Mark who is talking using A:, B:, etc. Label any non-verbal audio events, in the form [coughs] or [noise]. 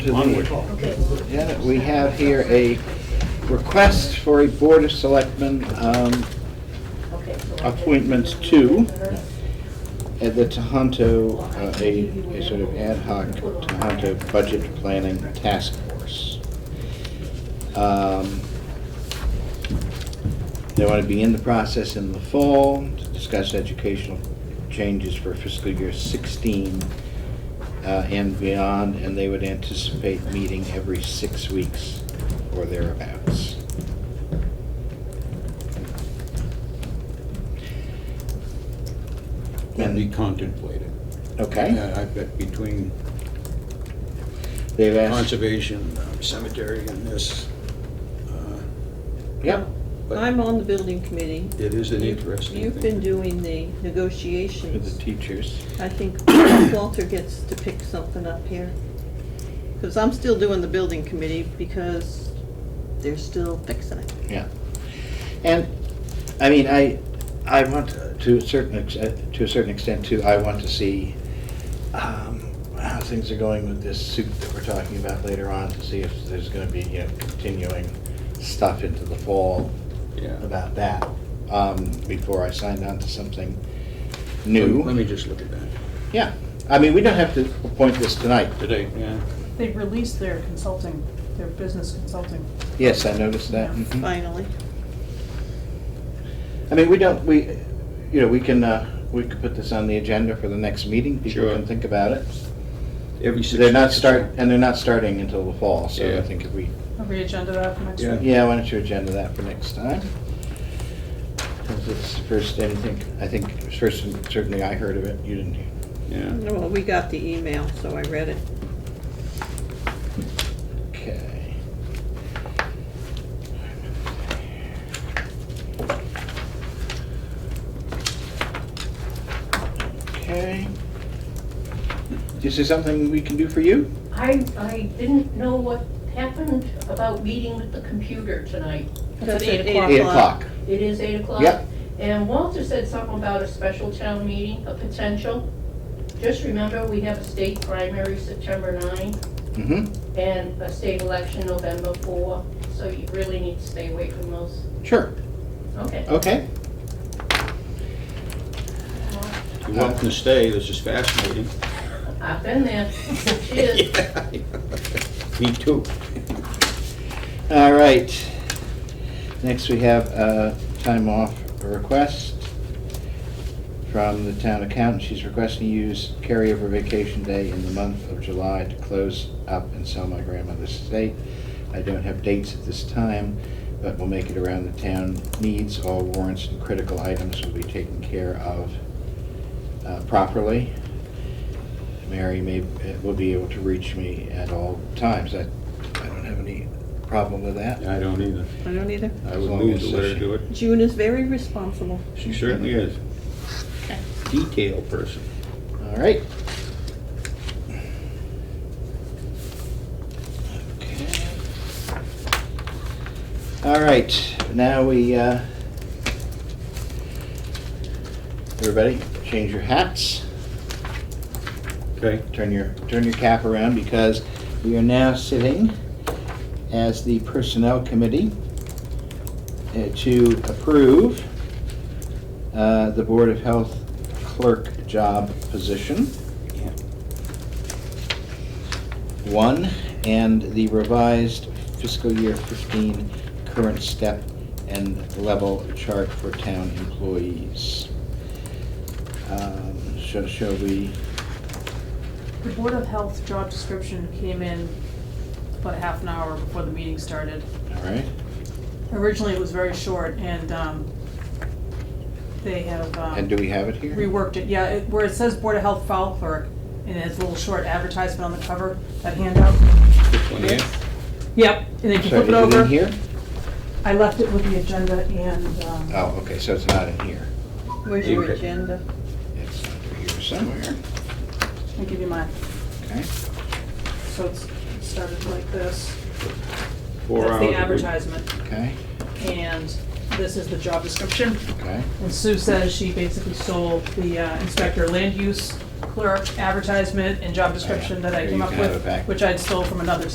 A: Onward.
B: Yeah, we have here a request for a Board of Selectmen um, appointments to the Tohoto, uh, a a sort of ad hoc Tohoto Budget Planning Task Force. Um, They want to begin the process in the fall to discuss educational changes for fiscal year 16 uh, and beyond, and they would anticipate meeting every six weeks or thereabouts.
A: Can be contemplated.
B: Okay,
A: Yeah, I bet between
B: they've asked,
A: conservation, um, cemetery and this, uh,
B: yep,
A: but
C: I'm on the building committee.
A: it is an
C: You-
A: interesting
C: You've
A: thing.
C: been doing the
B: for the
C: negotiations.
B: teachers.
C: I
B: [coughs]
C: think Walter gets to pick something up here. Because I'm still doing the building committee because they're still fixing it.
B: Yeah. And, I mean, I, I want to a certain, ex- uh, to a certain extent too, I want to see um, how things are going with this soup that we're talking about later on, to see if there's gonna be, you know, continuing stuff into the fall
A: Yeah.
B: about that, um, before I signed on to something
A: Let
B: new.
A: me just look at that
B: Yeah, I mean, we don't have to appoint this tonight.
A: today, yeah.
D: They've released their consulting, their business consulting.
B: Yes, I noticed that. Mhm.
C: Finally,
B: I mean, we don't, we, you know, we can, uh, we could put this on the agenda for the next meeting, people
A: Sure.
B: can think about it.
A: Every six.
B: They're not
A: months.
B: start, and they're not starting until the fall, so
A: Yeah.
B: I think if we,
D: Have we agenda that for next
A: Yeah.
D: week?
B: yeah, why don't you agenda that for next time? Because it's first, anything, I think, first, certainly I heard of it, you didn't hear.
A: Yeah.
C: well, we got the email, so I read it.
B: Okay. Okay. Do you see something we can do for you?
E: I, I didn't know what happened about meeting with the computer tonight.
C: That's
D: eight
C: at
D: o'clock.
B: Eight o'clock.
E: It is eight o'clock?
B: Yep.
E: And Walter said something about a special town meeting, a potential. Just remember, we have a state primary September 9
B: Mm-hmm,
E: and a state election November 4, so you really need to stay away from those.
B: sure,
E: Okay.
B: okay.
C: [laughs]
A: You're welcome to stay, this is fascinating.
E: I've been there.
A: [laughs]
E: Cheers.
A: Me too.
B: All right. Next, we have a time off request from the town accountant. She's requesting to use carryover vacation day in the month of July to close up and sell my grandmother's estate. I don't have dates at this time, but we'll make it around the town needs. All warrants and critical items will be taken care of uh, properly. Mary may, uh, will be able to reach me at all times. I, I don't have any problem with that.
A: I don't either.
C: I don't either.
A: I
B: As
A: would
B: long
A: move
B: as
A: to let her
B: she-
A: do it.
C: June is very responsible.
A: She certainly is. Detail person.
B: All right. Okay. All right, now we, uh, everybody, change your hats,
A: Okay,
B: turn your, turn your cap around because we are now sitting as the Personnel Committee uh, to approve uh, the Board of Health clerk job position. one, and the revised fiscal year 15 current step and level chart for town employees. Um, Shall shall we,
D: The Board of Health job description came in about half an hour before the meeting started.
B: all right?
D: Originally, it was very short, and um, they have um,
B: And do we have it here?
D: reworked it. Yeah, it- where it says Board of Health file clerk, and it has a little short advertisement on the cover, that handout.
A: this one here.
D: Yep, and if you
B: Sorry, is
D: flip
B: it in
D: it over,
B: here?
D: I left it with the agenda and um,
B: Oh, okay, so it's not in here.
C: Where's your
A: Okay.
C: agenda?
B: It's under here somewhere,
D: I'll give you mine.
B: okay?
D: So it's started like this.
A: Four
D: That's the
A: hours a week.
D: advertisement,
B: Okay,
D: and this is the job description.
B: okay,
D: And Sue says she basically stole the uh, inspector land use clerk advertisement and job description that I
B: Here,
D: came
B: you
D: up
B: can have it
D: with,
B: back.
D: which I'd stole from another